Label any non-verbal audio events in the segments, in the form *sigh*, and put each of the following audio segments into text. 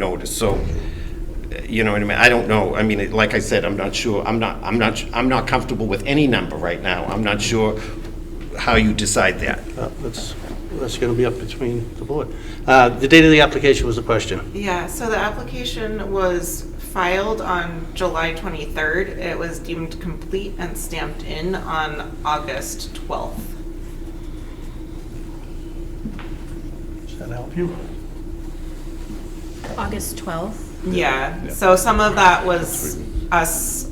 notice, so, uh, you know what I mean? I don't know, I mean, it- like I said, I'm not sure, I'm not, I'm not, I'm not comfortable with any number right now. I'm not sure how you decide that. Uh, That's, that's going to be up between the board. Uh, The date of the application was the question. Yeah, so the application was filed on July 23rd. It was deemed complete and stamped in on August 12th. Does that help you? August 12th. Yeah, so some of that was us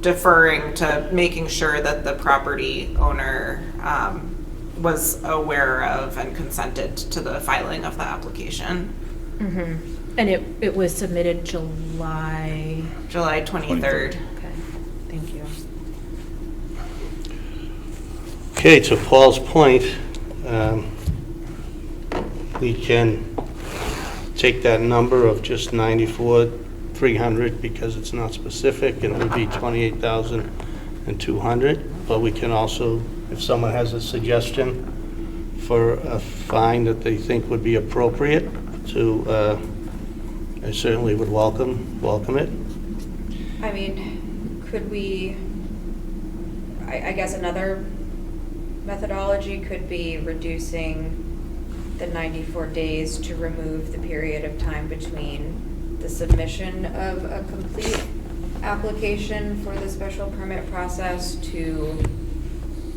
deferring to making sure that the property owner um, was aware of and consented to the filing of the application. And it, it was submitted July, July 23rd. okay, thank you. Okay, to Paul's point, um, we can take that number of just 94, 300, because it's not specific, and it would be 28,200. But we can also, if someone has a suggestion for a fine that they think would be appropriate to, uh, I certainly would welcome, welcome it. I mean, could we, I, I guess another methodology could be reducing the 94 days to remove the period of time between the submission of a complete application for the special permit process to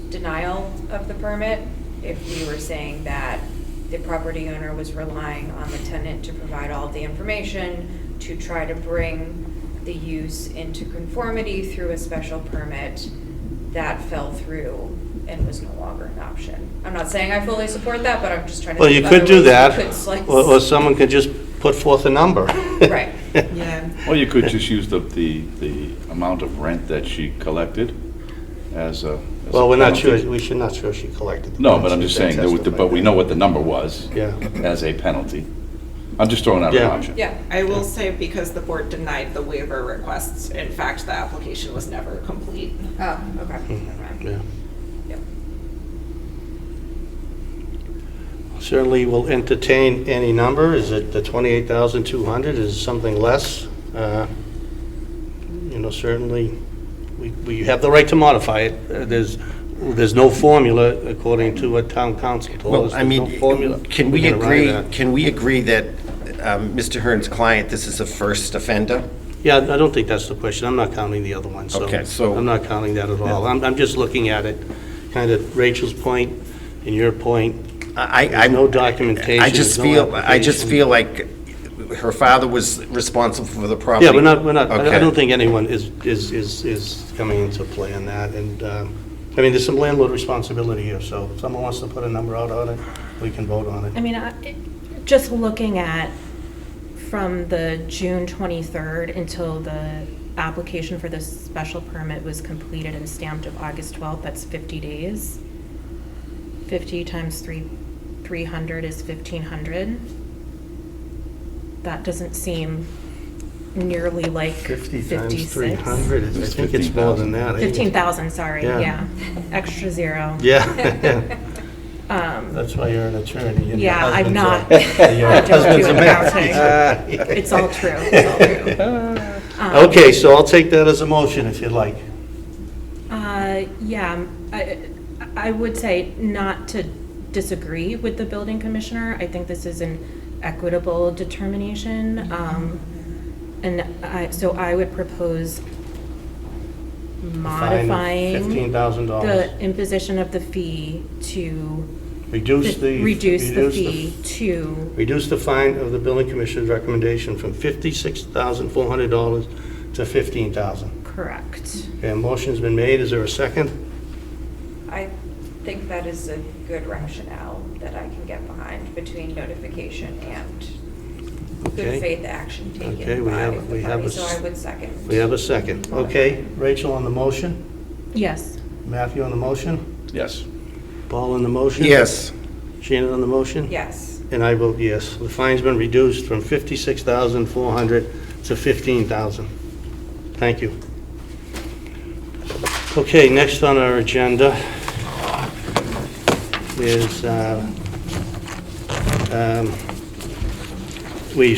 denial of the permit, if we were saying that the property owner was relying on the tenant to provide all the information to try to bring the use into conformity through a special permit, that fell through and was no longer an option. I'm not saying I fully support that, but I'm just trying to. Well, you think of could other do ways we that, could slice- or or someone could just put forth a number. *laughs* Right. Yeah. Or you could just use the, the, the amount of rent that she collected as a. as a Well, we're not sure, penalty. we should not sure she collected. the No, but funds. I'm just saying, that with the- but we know what the number was. Yeah. As a penalty. I'm just throwing out an Yeah. option. Yeah, I will say because the board denied the waiver requests, in fact, the application was never complete. oh, *laughs* okay, never mind. Yeah. Yep. Certainly will entertain any number. Is it the 28,200? Is it something less? Uh, You know, certainly, we we have the right to modify it. Uh, There's, there's no formula according to what town council told us. Well, I There's no formula. mean, can we We're gonna ride agree, that. can we agree that um, Mr. Hearn's client, this is a first offender? Yeah, I don't think that's the question. I'm not counting the other one, so. Okay, so- I'm not counting that at all. I'm, I'm just looking at it, kind of Rachel's point and your point. I, I- There's I'm... no documentation, I just there's no feel, I just application. feel like her father was responsible for the property. Yeah, we're not, we're not, I- I Okay. don't think anyone is, is, is, is coming into play on that, and, um, I mean, there's some landlord responsibility here, so if someone wants to put a number out on it, we can vote on I it. mean, I, it- just looking at from the June 23rd until the application for the special permit was completed and stamped of August 12th, that's 50 days. 50 times 3, 300 is 1,500. That doesn't seem nearly like 50 56. times 300, is- I It's think it's more than 15,000. that. I think it's- 15,000, sorry, Yeah. yeah. Extra zero. Yeah, Um, that's why you're an attorney. and your Yeah, I'm husband's a- *laughs* not. Your I don't do husband's a accounting. Um, man. *laughs* It's *laughs* all true, it's all true. Um, Okay, so I'll take that as a motion if you'd like. Uh, yeah, um, I, I would say not to disagree with the building commissioner. I think this is an equitable determination. Um, and I, so I would propose modifying the $15,000. imposition of the fee to Reduce the. reduce the fee to, Reduce the fine of the building commissioner's recommendation from $56,400 to $15,000. correct. Okay, a motion's been made, is there a second? I think that is a good rationale that I can get behind between notification and Okay. good faith action Okay, taken we by have- we the have party, a so s- I would second. We have a second. Okay, Rachel on the motion, Yes. Matthew on the motion, Yes. Paul on the motion? Yes, Shannon on the motion? Yes, And I vote yes. The fine's been reduced from $56,400 to $15,000. Thank you. Okay, next on our agenda is, uh, um, we